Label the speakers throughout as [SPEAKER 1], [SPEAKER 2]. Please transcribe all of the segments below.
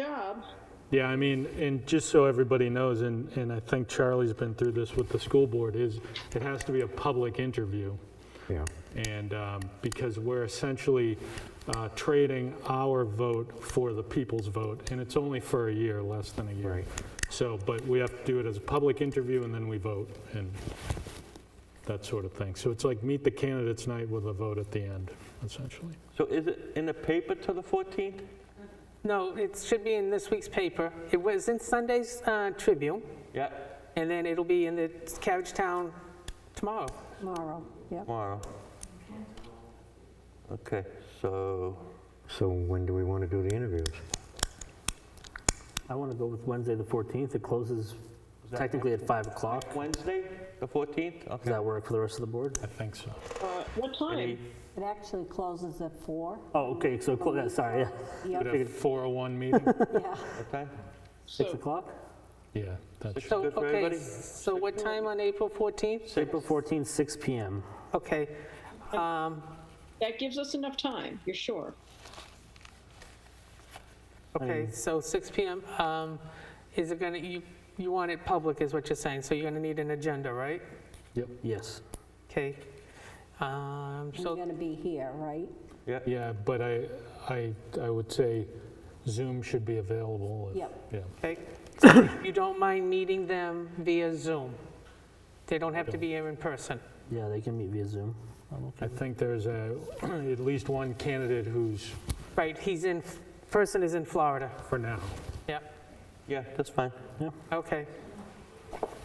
[SPEAKER 1] job.
[SPEAKER 2] Yeah, I mean, and just so everybody knows, and, and I think Charlie's been through this with the school board, is it has to be a public interview.
[SPEAKER 3] Yeah.
[SPEAKER 2] And um, because we're essentially uh, trading our vote for the people's vote, and it's only for a year, less than a year.
[SPEAKER 3] Right.
[SPEAKER 2] So, but we have to do it as a public interview, and then we vote, and that sort of thing. So it's like meet the candidates night with a vote at the end, essentially.
[SPEAKER 4] So is it in the paper till the 14th?
[SPEAKER 5] No, it should be in this week's paper. It was in Sunday's uh, Tribune,
[SPEAKER 4] Yeah,
[SPEAKER 5] and then it'll be in the Carriage Town tomorrow.
[SPEAKER 1] Tomorrow, yep.
[SPEAKER 4] tomorrow. Okay, so,
[SPEAKER 3] So when do we want to do the interviews?
[SPEAKER 6] I want to go with Wednesday, the 14th. It closes technically at 5 o'clock.
[SPEAKER 4] Wednesday, the 14th?
[SPEAKER 6] Does
[SPEAKER 4] Okay.
[SPEAKER 6] that work for the rest of the board?
[SPEAKER 2] I think so.
[SPEAKER 1] Uh, What
[SPEAKER 4] Any-
[SPEAKER 1] time?
[SPEAKER 7] It actually closes at four.
[SPEAKER 6] Oh, okay, so, clo- yeah, sorry, yeah.
[SPEAKER 2] Would a 401 meeting?
[SPEAKER 7] Yeah.
[SPEAKER 4] What time?
[SPEAKER 6] 6
[SPEAKER 1] So
[SPEAKER 6] o'clock?
[SPEAKER 2] Yeah, that's
[SPEAKER 4] Six
[SPEAKER 5] So,
[SPEAKER 4] good for
[SPEAKER 5] okay,
[SPEAKER 4] everybody?
[SPEAKER 5] so what time on April 14th?
[SPEAKER 6] April 14th, 6 PM.
[SPEAKER 5] Okay. um,
[SPEAKER 1] that gives us enough time, you're sure?
[SPEAKER 4] Mm.
[SPEAKER 5] Okay, so 6 PM. um, Is it going to, you, you want it public is what you're saying, so you're going to need an agenda, right?
[SPEAKER 6] Yes.
[SPEAKER 5] Okay. Um,
[SPEAKER 7] You're
[SPEAKER 5] So,
[SPEAKER 7] going to be here, right?
[SPEAKER 4] Yeah,
[SPEAKER 2] Yeah, but I, I, I would say Zoom should be available. if-
[SPEAKER 7] Yep.
[SPEAKER 2] Yeah,
[SPEAKER 5] okay. You don't mind meeting them via Zoom? They don't have to be here in person?
[SPEAKER 6] Yeah, they can meet via Zoom. I'm
[SPEAKER 2] I
[SPEAKER 6] Oh, okay.
[SPEAKER 2] think there's a, at least one candidate who's,
[SPEAKER 5] Right, he's in, person is in Florida.
[SPEAKER 2] for now,
[SPEAKER 5] Yep,
[SPEAKER 4] yeah, that's fine.
[SPEAKER 5] okay.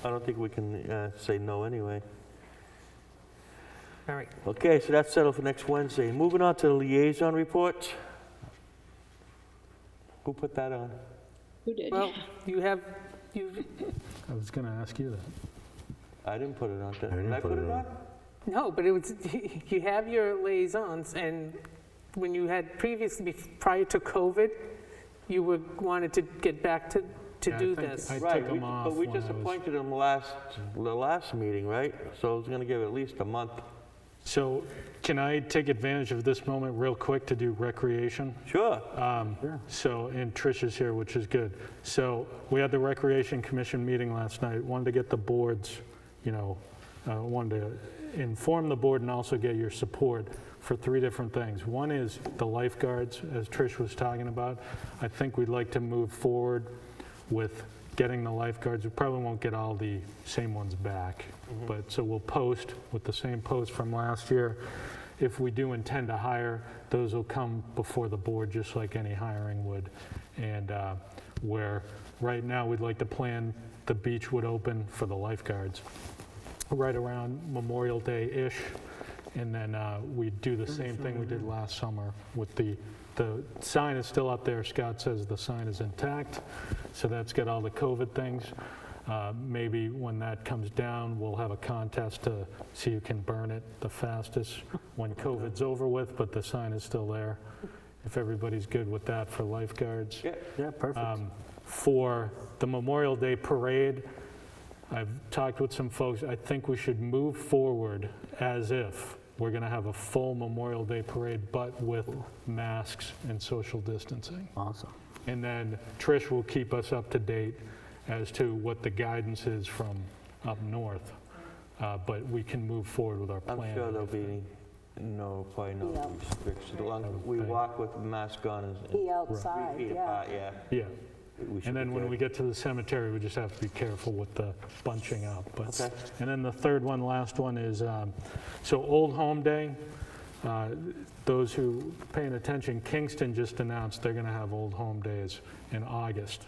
[SPEAKER 4] I don't think we can uh, say no anyway.
[SPEAKER 5] All right,
[SPEAKER 4] Okay, so that's settled for next Wednesday. Moving on to the liaison reports. Who put that on?
[SPEAKER 1] Who did?
[SPEAKER 5] well, you have, you,
[SPEAKER 2] I was going to ask you that.
[SPEAKER 4] I didn't put it on. Did
[SPEAKER 3] I didn't
[SPEAKER 4] I put it on?
[SPEAKER 5] no, but it was, you have your liaisons, and when you had previously, prior to COVID, you were, wanted to get back to,
[SPEAKER 2] Yeah,
[SPEAKER 5] to
[SPEAKER 2] I
[SPEAKER 5] do
[SPEAKER 2] think
[SPEAKER 5] this.
[SPEAKER 2] I
[SPEAKER 4] Right,
[SPEAKER 2] took
[SPEAKER 4] we-
[SPEAKER 2] them off.
[SPEAKER 4] But we
[SPEAKER 2] when I
[SPEAKER 4] just
[SPEAKER 2] was-
[SPEAKER 4] appointed him last, the last meeting, right? So it's going to give it at least a month.
[SPEAKER 2] So can I take advantage of this moment real quick to do recreation?
[SPEAKER 4] Sure.
[SPEAKER 2] Um, So, and Trish is here, which is good. So we had the Recreation Commission meeting last night. Wanted to get the boards, you know, uh, wanted to inform the board and also get your support for three different things. One is the lifeguards, as Trish was talking about. I think we'd like to move forward with getting the lifeguards. We probably won't get all the same ones back, but, so we'll post with the same post from last year. If we do intend to hire, those will come before the board, just like any hiring would. And uh, where, right now, we'd like to plan, the beach would open for the lifeguards right around Memorial Day-ish. And then uh, we'd do the same thing we did last summer with the, the sign is still up there. Scott says the sign is intact, so that's got all the COVID things. Uh, Maybe when that comes down, we'll have a contest to see who can burn it the fastest when COVID's over with, but the sign is still there. If everybody's good with that for lifeguards.
[SPEAKER 4] Yeah,
[SPEAKER 6] Yeah, perfect.
[SPEAKER 2] Um, For the Memorial Day Parade, I've talked with some folks, I think we should move forward as if we're going to have a full Memorial Day Parade, but with masks and social distancing.
[SPEAKER 6] Awesome.
[SPEAKER 2] And then Trish will keep us up to date as to what the guidance is from up north, Uh, but we can move forward with our
[SPEAKER 4] I'm
[SPEAKER 2] plan.
[SPEAKER 4] sure there'll be no, probably
[SPEAKER 7] Yeah.
[SPEAKER 4] no restrictions. As long as
[SPEAKER 2] would
[SPEAKER 4] we
[SPEAKER 2] think.
[SPEAKER 4] walk with mask on and- and
[SPEAKER 7] Be outside,
[SPEAKER 4] three feet
[SPEAKER 7] yeah.
[SPEAKER 4] apart, uh, yeah.
[SPEAKER 2] Yeah.
[SPEAKER 4] we should
[SPEAKER 2] And then
[SPEAKER 4] be
[SPEAKER 2] when
[SPEAKER 4] good.
[SPEAKER 2] we get to the cemetery, we just have to be careful with the bunching up. But
[SPEAKER 4] Okay.
[SPEAKER 2] And then the third one, last one is, um, so Old Home Day, uh, those who paying attention, Kingston just announced they're going to have Old Home Days in August.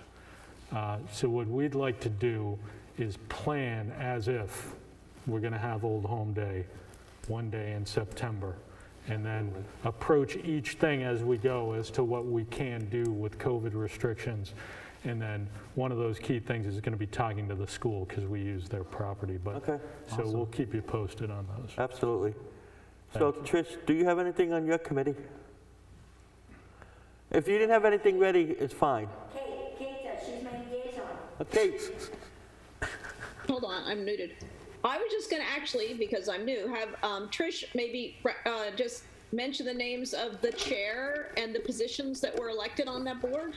[SPEAKER 2] Uh, So what we'd like to do is plan as if we're going to have Old Home Day one day in September, and then approach each thing as we go as to what we can do with COVID restrictions. And then one of those key things is going to be talking to the school because we use their property. But
[SPEAKER 4] Okay,
[SPEAKER 2] so we'll keep you posted on those.
[SPEAKER 4] absolutely. So Trish, do you have anything on your committee? If you didn't have anything ready, it's fine.
[SPEAKER 8] Kate, Kate does, she's my liaison.
[SPEAKER 4] Okay,
[SPEAKER 1] Hold on, I'm muted. I was just gonna actually, because I'm new, have um, Trish maybe uh, just mention the names of the chair and the positions that were elected on that board.